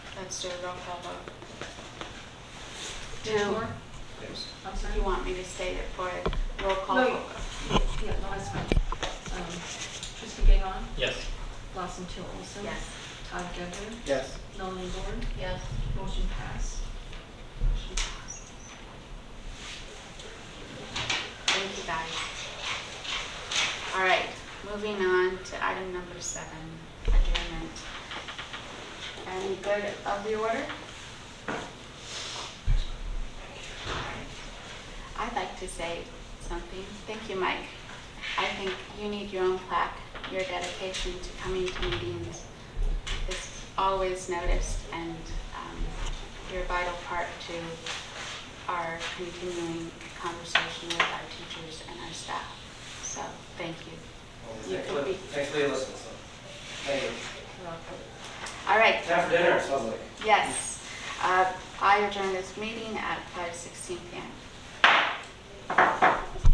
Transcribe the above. let's do a roll call vote. Now, Moore? Yes. I'm sorry? You want me to state it for a roll call? No, vote? Yeah, no, that's fine. Um, Trustee Gagnon, Yes. Lawson Till Olson. Yes. Todd Gubber, Yes. Melanie Ward, Yes. motion passed. Motion passed. Thank you, guys. All right, moving on to item number seven, adjournment. Any good of the order? I'd like to say something. Thank you, Mike. I think you need your own plaque, your dedication to coming to meetings is always noticed and um, you're a vital part to our continuing conversation with our teachers and our staff. So, thank you. You Thanks could for be- thanks for your listen, so. Thank you. All right, Time for dinner, it sounds like. yes. Uh, I adjourn this meeting at 5:16 PM.